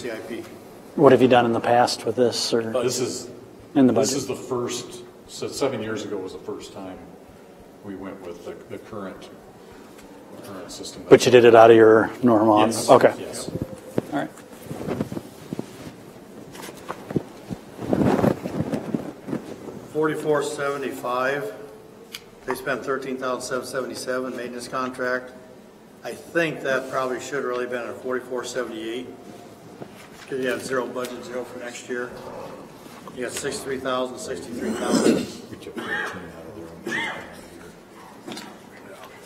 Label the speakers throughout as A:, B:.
A: CIP.
B: What have you done in the past with this or
C: This is,
B: in the
C: Uh, this is
B: budget?
C: the first, so seven years ago was the first time we went with the, the current, the current system.
B: But you did it out of your normal?
C: Yes,
B: Okay,
C: Yes.
B: all right.
A: Forty-four seventy-five, they spent thirteen thousand seven seventy-seven maintenance contract. I think that probably should really been a forty-four seventy-eight, because you have zero budget, zero for next year. You got sixty-three thousand, sixty-three thousand,
C: We took 13 out of there.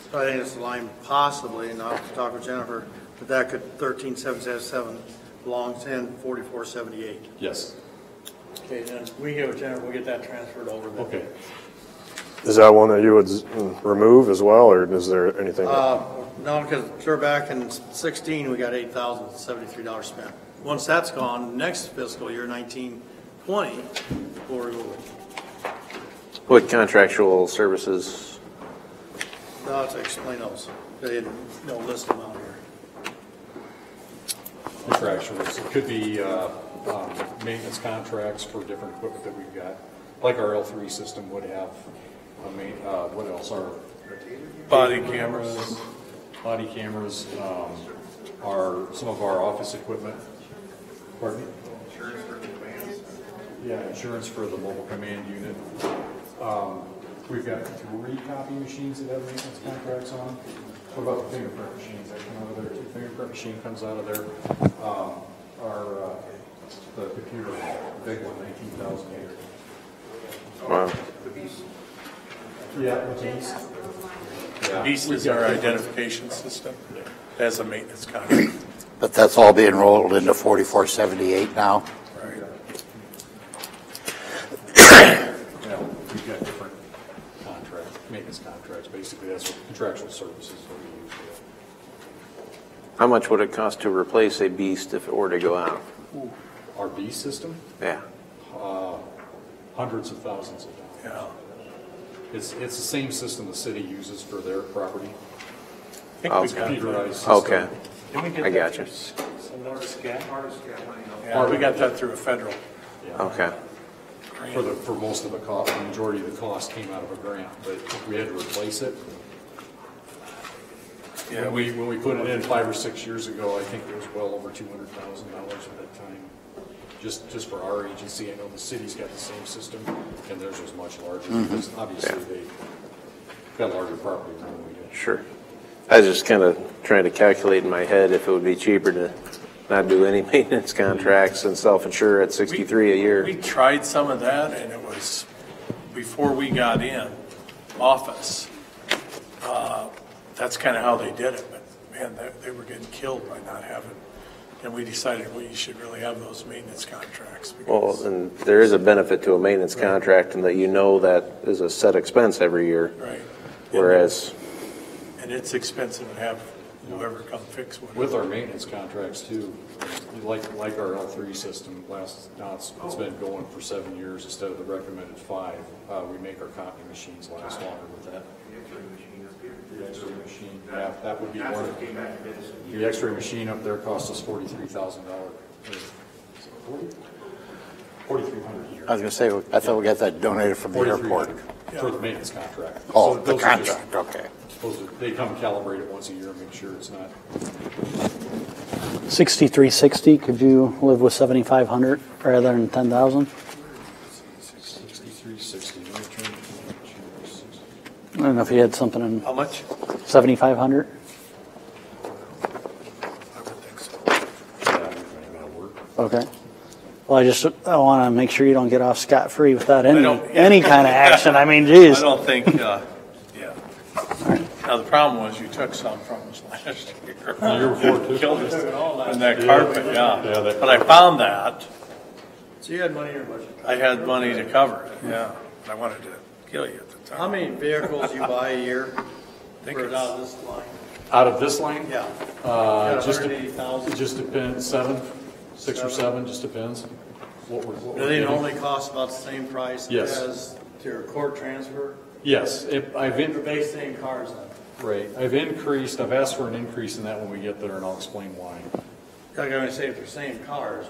A: so I think it's a line possibly, and I'll have to talk with Jennifer, but that could, thirteen seven seven seven belongs in forty-four seventy-eight.
C: Yes,
A: Okay, then we get with Jennifer, we'll get that transferred over then.
C: okay.
D: Is that one that you would s- remove as well, or is there anything?
A: Uh, no, because clear back in sixteen, we got eight thousand seventy-three dollars spent. Once that's gone, next fiscal year nineteen twenty, we'll remove it.
E: What contractual services?
A: Now I'll have to explain those. They didn't, no list them out here.
C: Contractuals, it could be, uh, um, maintenance contracts for different equipment that we've got. Like our L three system would have, I mean, uh, what else, our. Body cameras. Body cameras, um, our, some of our office equipment. Pardon? Yeah, insurance for the mobile command unit. Um, We've got three copy machines that have maintenance contracts on. What about the fingerprint machines that come out of there? too? Fingerprint machine comes out of there. Um, Our, uh, the computer, the big one, nineteen thousand eight.
E: Wow.
C: Yeah. the beast. Yeah.
F: Beast is our identification system as a maintenance contract.
G: But that's all being rolled into 4478 now?
C: You know, we've got different contracts, maintenance contracts. Basically, that's what contractual services that we use.
E: How much would it cost to replace a beast if it were to go out?
C: Our B system,
E: Yeah.
C: hundreds of thousands of dollars.
F: Yeah.
C: It's, it's the same system the city uses for their property,
F: I think we got
C: computerized system.
E: Okay.
F: Didn't we get
E: I
F: that
E: gotcha.
F: through some Artiscat? Yeah, we got that through a federal.
E: Okay.
C: For the, for most of the cost, the majority of the cost came out of a grant, but if we had to replace it. Yeah, we, when we put it in five or six years ago, I think it was well over two hundred thousand dollars at that time. Just, just for our agency, I know the city's got the same system, and theirs was much larger, because obviously they got larger property than we did.
E: Sure. I was just kind of trying to calculate in my head if it would be cheaper to not do any maintenance contracts and self-insure at 63 a
F: We
E: year.
F: tried some of that, and it was before we got in office. Uh, That's kind of how they did it, but man, they, they were getting killed by not having, and we decided we should really have those maintenance contracts. because-
E: Well, and there is a benefit to a maintenance contract in that you know that is a set expense every year,
F: Right.
E: whereas,
F: And it's expensive to have whoever come fix one.
C: With our maintenance contracts too, like, like our L3 system, last, now it's, it's been going for seven years instead of the recommended five. Uh, we make our copy machines last longer with that. The X-ray machine, yeah, that would be one. The X-ray machine up there cost us forty-three thousand dollars. Forty-three hundred a year.
G: I was going to say, I thought we got that donated from the airport.
C: 4,300 For the maintenance contract.
G: Oh,
C: So
G: the
C: those are just-
G: contract, okay.
C: Those are, they come calibrate it once a year and make sure it's not
B: 6360, could you live with 7,500 rather than 10,000?
C: 6360. Let me turn it to 6360.
B: I don't know if you had something in
F: How much?
B: 7,500?
F: I would think so.
B: Okay. Well, I just, I want to make sure you don't get off scot-free without any,
F: don't-
B: any kind of action. I mean, geez.
F: I don't think, uh, yeah. Now, the problem was you took some from us last year.
C: year before, too.
F: Killed us in that carpet,
C: Yeah,
F: yeah.
C: that-
F: But I found that,
A: So you had money in your budget.
F: I had money to cover it, yeah. I wanted to kill you at the time.
A: How many vehicles you buy a year
F: Think
A: for
F: it's-
A: out of this line?
C: Out of this line?
A: Yeah.
C: Uh,
A: Got
C: just, it
A: 180,000.
C: just depends, seven, six or
A: Seven.
C: seven, just depends what we're, what
A: Do
C: we're
A: they
C: getting.
A: only cost about the same price
C: Yes.
A: as your court transfer?
C: Yes, it- I've, in-
A: They're based in cars then.
C: right, I've increased, I've asked for an increase in that when we get there, and I'll explain why.
A: Like I was saying, if they're same cars,